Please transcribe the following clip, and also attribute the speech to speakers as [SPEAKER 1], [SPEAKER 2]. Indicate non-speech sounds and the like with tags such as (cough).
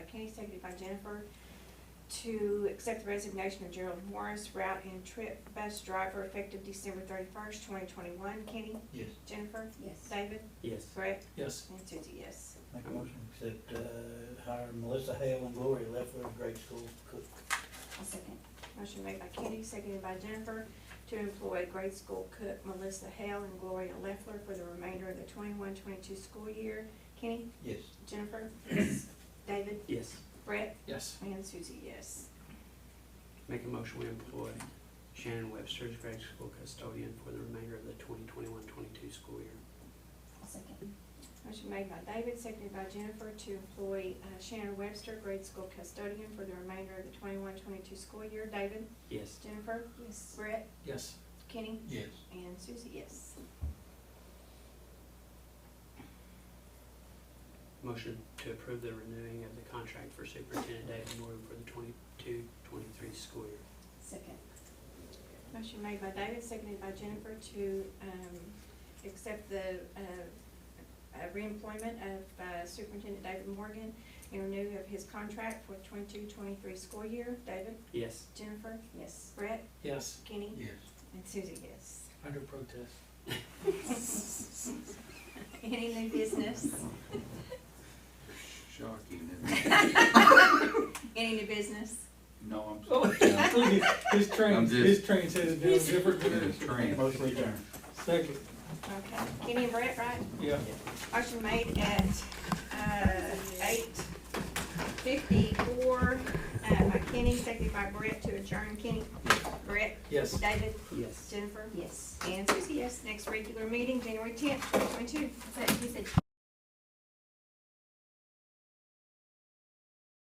[SPEAKER 1] Kenny, seconded by Jennifer, to accept the resignation of Gerald Morris, route and trip bus driver, effective December thirty-first, twenty twenty-one. Kenny?
[SPEAKER 2] Yes.
[SPEAKER 1] Jennifer?
[SPEAKER 3] Yes.
[SPEAKER 1] David?
[SPEAKER 4] Yes.
[SPEAKER 1] Brett?
[SPEAKER 2] Yes.
[SPEAKER 1] And Susie, yes.
[SPEAKER 2] Make a motion, to accept, uh, hire Melissa Hale and Gloria Leffler, grade school cook.
[SPEAKER 3] I'll second.
[SPEAKER 1] Motion made by Kenny, seconded by Jennifer, to employ grade school cook Melissa Hale and Gloria Leffler for the remainder of the 21-22 school year. Kenny?
[SPEAKER 2] Yes.
[SPEAKER 1] Jennifer? Yes. David?
[SPEAKER 4] Yes.
[SPEAKER 1] Brett?
[SPEAKER 2] Yes.
[SPEAKER 1] And Susie, yes.
[SPEAKER 4] Make a motion we employ Shannon Webster as grade school custodian for the remainder of the 2021-22 school year.
[SPEAKER 3] I'll second.
[SPEAKER 1] Motion made by David, seconded by Jennifer, to employ uh, Shannon Webster, grade school custodian for the remainder of the 21-22 school year. David?
[SPEAKER 4] Yes.
[SPEAKER 1] Jennifer?
[SPEAKER 3] Yes.
[SPEAKER 1] Brett?
[SPEAKER 2] Yes.
[SPEAKER 1] Kenny?
[SPEAKER 2] Yes.
[SPEAKER 1] And Susie, yes.
[SPEAKER 4] Motion to approve the renewing of the contract for Superintendent David Morgan for the 22-23 school year.
[SPEAKER 3] Second.
[SPEAKER 1] Motion made by David, seconded by Jennifer to, um, accept the, uh, uh, reemployment of uh, Superintendent David Morgan in renew of his contract for 22-23 school year. David,
[SPEAKER 4] Yes.
[SPEAKER 1] Jennifer,
[SPEAKER 3] Yes.
[SPEAKER 1] Brett,
[SPEAKER 2] Yes.
[SPEAKER 1] Kenny,
[SPEAKER 2] Yes.
[SPEAKER 1] and Susie, yes.
[SPEAKER 2] Under protest.
[SPEAKER 1] Any new business?
[SPEAKER 5] Shocking, isn't it?
[SPEAKER 1] Any new business?
[SPEAKER 5] No, I'm.
[SPEAKER 2] Oh, his train,
[SPEAKER 5] I'm just-
[SPEAKER 2] his train says it's (laughs) down different.
[SPEAKER 5] It's a train.
[SPEAKER 2] Motion adjourned. Second.
[SPEAKER 1] Okay, Kenny and Brett, right?
[SPEAKER 2] Yeah.
[SPEAKER 1] Motion made at, uh, eight fifty-four, uh, by Kenny, seconded by Brett to adjourn. Kenny, Brett,
[SPEAKER 2] Yes.
[SPEAKER 1] David,
[SPEAKER 4] Yes.
[SPEAKER 1] Jennifer,
[SPEAKER 3] Yes.
[SPEAKER 1] and Susie, yes. Next regular meeting, January tenth, twenty twenty-two.
[SPEAKER 3] Is that, you said